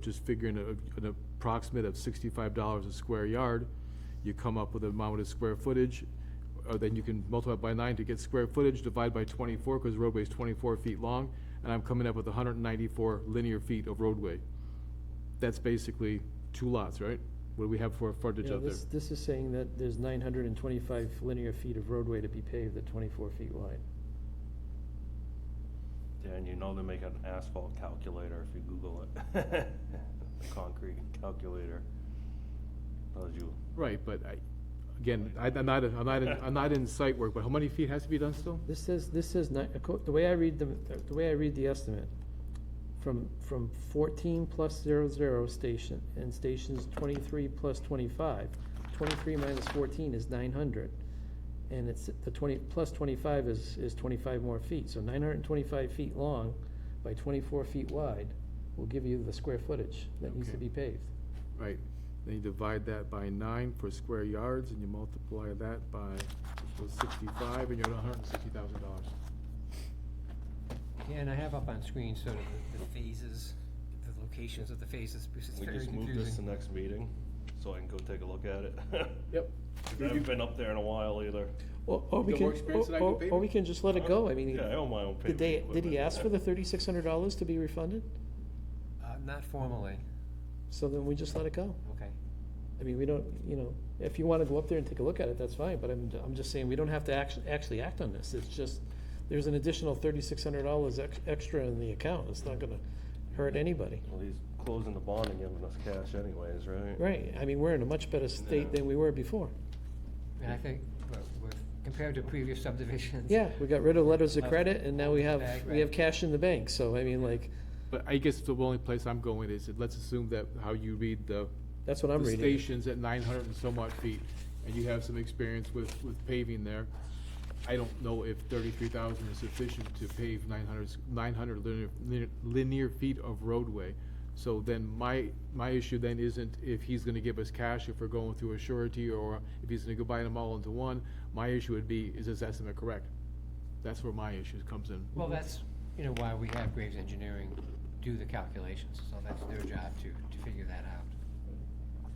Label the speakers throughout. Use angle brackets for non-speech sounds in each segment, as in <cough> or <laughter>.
Speaker 1: just figuring a- an approximate of sixty-five dollars a square yard, you come up with a amount of square footage, or then you can multiply by nine to get square footage, divide by twenty-four, because roadway's twenty-four feet long, and I'm coming up with hundred and ninety-four linear feet of roadway. That's basically two lots, right? What do we have for frontage
Speaker 2: Yeah,
Speaker 1: out there?
Speaker 2: this, this is saying that there's nine hundred and twenty-five linear feet of roadway to be paved at twenty-four feet wide.
Speaker 3: Yeah, and you know they make an asphalt calculator if you Google it. <laughs> A concrete calculator. Tells you,
Speaker 1: Right, but I, again, I, I'm not, I'm not, in- I'm not in site work, but how many feet has to be done still?
Speaker 2: This says, this says, ni- acco- the way I read the, the way I read the estimate, from, from fourteen plus zero zero station, and stations twenty-three plus 25, 23 minus fourteen is nine hundred. And it's, the twenty, plus twenty-five is, is twenty-five more feet, so nine hundred and twenty-five feet long by twenty-four feet wide will give you the square footage that needs to
Speaker 1: Okay.
Speaker 2: be paved.
Speaker 1: Right, then you divide that by nine for square yards, and you multiply that by equals sixty-five, and you're at hundred and sixty thousand dollars.
Speaker 4: Yeah, and I have up on screen sort of the- the phases, the locations of the phases, because it's
Speaker 3: we
Speaker 4: very
Speaker 3: just move this to
Speaker 4: confusing.
Speaker 3: next meeting, so I can go take a look at it. <laughs>
Speaker 1: Yep.
Speaker 3: I haven't been up there in a while either.
Speaker 2: Or, or we
Speaker 1: Got
Speaker 2: can,
Speaker 1: more experience
Speaker 2: or-
Speaker 1: than I do
Speaker 2: or- or we
Speaker 1: paving?
Speaker 2: can just let it go, I mean,
Speaker 3: Yeah, I own my own paving
Speaker 2: did they, did he
Speaker 3: equipment.
Speaker 2: ask for the thirty-six hundred dollars to be refunded?
Speaker 4: Uh, Not formally,
Speaker 2: So then we just let it go.
Speaker 4: okay.
Speaker 2: I mean, we don't, you know, if you wanna go up there and take a look at it, that's fine, but I'm, I'm just saying, we don't have to actually, actually act on this, it's just, there's an additional thirty-six hundred dollars ex- extra in the account, it's not gonna hurt anybody.
Speaker 3: <laughs> Well, he's closing the bond and giving us cash anyways, right? <laughs>
Speaker 2: Right, I mean, we're in a much better state
Speaker 3: Yeah.
Speaker 2: than we were before.
Speaker 4: And I think, well, with- compared to previous subdivisions.
Speaker 2: Yeah, we got rid of letters of
Speaker 4: Left
Speaker 2: credit, and now we have,
Speaker 4: bag,
Speaker 2: we have
Speaker 4: right.
Speaker 2: cash in the bank, so I mean, like,
Speaker 1: But I guess the only place I'm going is, that let's assume that how you read the,
Speaker 2: that's what I'm
Speaker 1: the
Speaker 2: reading.
Speaker 1: stations at nine hundred and so much feet, and you have some experience with, with paving there. I don't know if thirty-three thousand is sufficient to pave 900 900 linear- linear, linear feet of roadway. So then my, my issue then isn't if he's gonna give us cash if we're going through a surety, or if he's gonna go buy them all into one. My issue would be, is this estimate correct? That's where my issue comes in.
Speaker 4: Well, that's, you know, why we have Graves Engineering do the calculations, so that's their job to, to figure that out.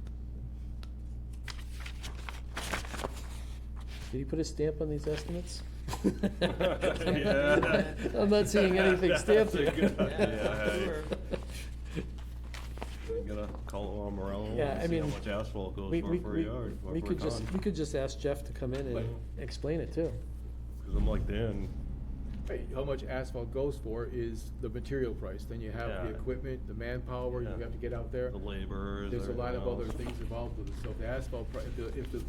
Speaker 2: Did he put a stamp on these
Speaker 1: <laughs>
Speaker 2: estimates?
Speaker 3: Yeah.
Speaker 2: I'm
Speaker 3: <laughs>
Speaker 2: not seeing anything stamped
Speaker 3: That's a good
Speaker 2: there.
Speaker 3: idea, You gotta call on Morello
Speaker 2: Yeah, I
Speaker 3: and see how
Speaker 2: mean,
Speaker 3: much asphalt goes
Speaker 2: We,
Speaker 3: for
Speaker 2: we,
Speaker 3: per
Speaker 2: we,
Speaker 3: yard. or
Speaker 2: we
Speaker 3: per
Speaker 2: could just,
Speaker 3: ton.
Speaker 2: we could just ask Jeff to come in and explain it too.
Speaker 3: Cause I'm like, Dan,
Speaker 1: Right, how much asphalt goes for is the material price, then you have the
Speaker 3: Yeah.
Speaker 1: equipment, the manpower, you
Speaker 3: Yeah.
Speaker 1: have to get out there.
Speaker 3: the laborers.
Speaker 1: There's a lot of
Speaker 3: everything
Speaker 1: other
Speaker 3: else.
Speaker 1: things involved with it, so if the asphalt, pri- if the, if the,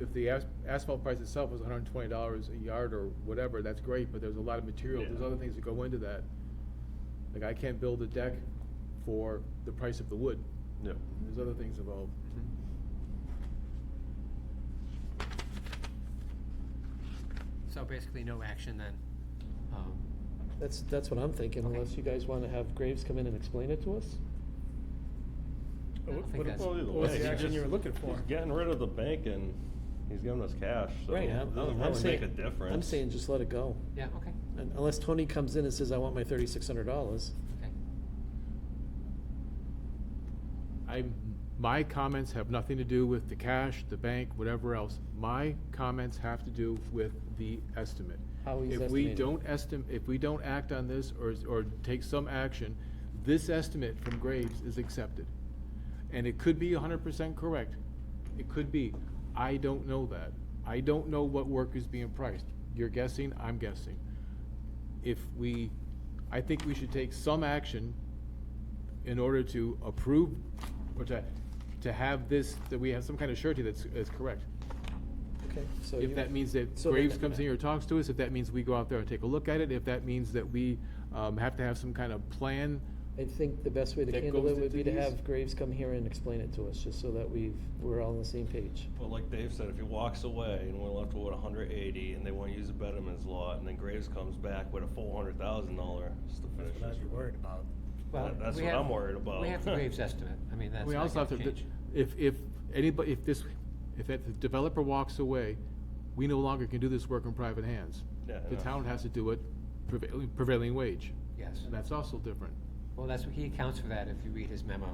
Speaker 1: if the as- asphalt price itself was hundred and twenty dollars a yard or whatever, that's great, but there's a lot of material, there's
Speaker 3: Yeah.
Speaker 1: other things that go into that. Like, I can't build a deck for the price of the wood,
Speaker 3: Yeah.
Speaker 1: there's other things involved.
Speaker 4: So basically, no action then. Um,
Speaker 2: That's, that's what I'm thinking,
Speaker 4: Okay.
Speaker 2: unless you guys wanna have Graves come in and explain it to us?
Speaker 4: I don't think that's,
Speaker 3: Well, either
Speaker 5: What was
Speaker 3: way,
Speaker 5: the
Speaker 3: he
Speaker 5: action
Speaker 3: just-
Speaker 5: you were looking for?
Speaker 3: He's getting rid of the bank and he's giving us cash, so
Speaker 2: Right,
Speaker 3: it
Speaker 2: I'm,
Speaker 3: doesn't
Speaker 2: I'm
Speaker 3: really make
Speaker 2: saying,
Speaker 3: a difference.
Speaker 2: I'm saying just let it go,
Speaker 4: yeah, okay,
Speaker 2: Un- unless Tony comes in and says, I want my thirty-six hundred dollars.
Speaker 4: okay.
Speaker 1: I, my comments have nothing to do with the cash, the bank, whatever else. My comments have to do with the estimate.
Speaker 2: How he's
Speaker 1: If we
Speaker 2: estimating.
Speaker 1: don't estim, if we don't act on this or, or take some action, this estimate from Graves is accepted. And it could be hundred percent correct. It could be. I don't know that. I don't know what work is being priced. You're guessing, I'm guessing. If we, I think we should take some action in order to approve, or to, to have this, that we have some kind of surety that's, is correct.
Speaker 2: Okay, so you.
Speaker 1: If that means that
Speaker 2: so then-
Speaker 1: Graves comes in here and talks to us, if that means we go out there and take a look at it, if that means that we, um, have to have some kind of plan,
Speaker 2: I think the best way to
Speaker 1: that
Speaker 2: handle
Speaker 1: goes
Speaker 2: it would
Speaker 1: into
Speaker 2: be to
Speaker 1: these?
Speaker 2: have Graves come here and explain it to us, just so that we've, we're all on the same page.
Speaker 3: But like Dave said, if he walks away and we're left with hundred eighty and they wanna use a Betterman's lot and then Graves comes back with a four hundred thousand dollar just to finish
Speaker 5: That's what
Speaker 3: this.
Speaker 5: I was worried about.
Speaker 4: Well,
Speaker 3: That's
Speaker 4: we
Speaker 3: what
Speaker 4: have-
Speaker 3: I'm worried about.
Speaker 4: We
Speaker 3: <laughs>
Speaker 4: have the Graves estimate, I mean, that's
Speaker 1: We
Speaker 4: not
Speaker 1: also have
Speaker 4: gonna
Speaker 1: to,
Speaker 4: change.
Speaker 1: if, if anybody, if this, if that developer walks away, we no longer can do this work in private hands.
Speaker 3: Yeah, I
Speaker 1: The
Speaker 3: know.
Speaker 1: town has to do it prevailing, prevailing wage,
Speaker 4: Yes,
Speaker 1: and that's also different.
Speaker 4: well, that's, he accounts for that if you read his memo.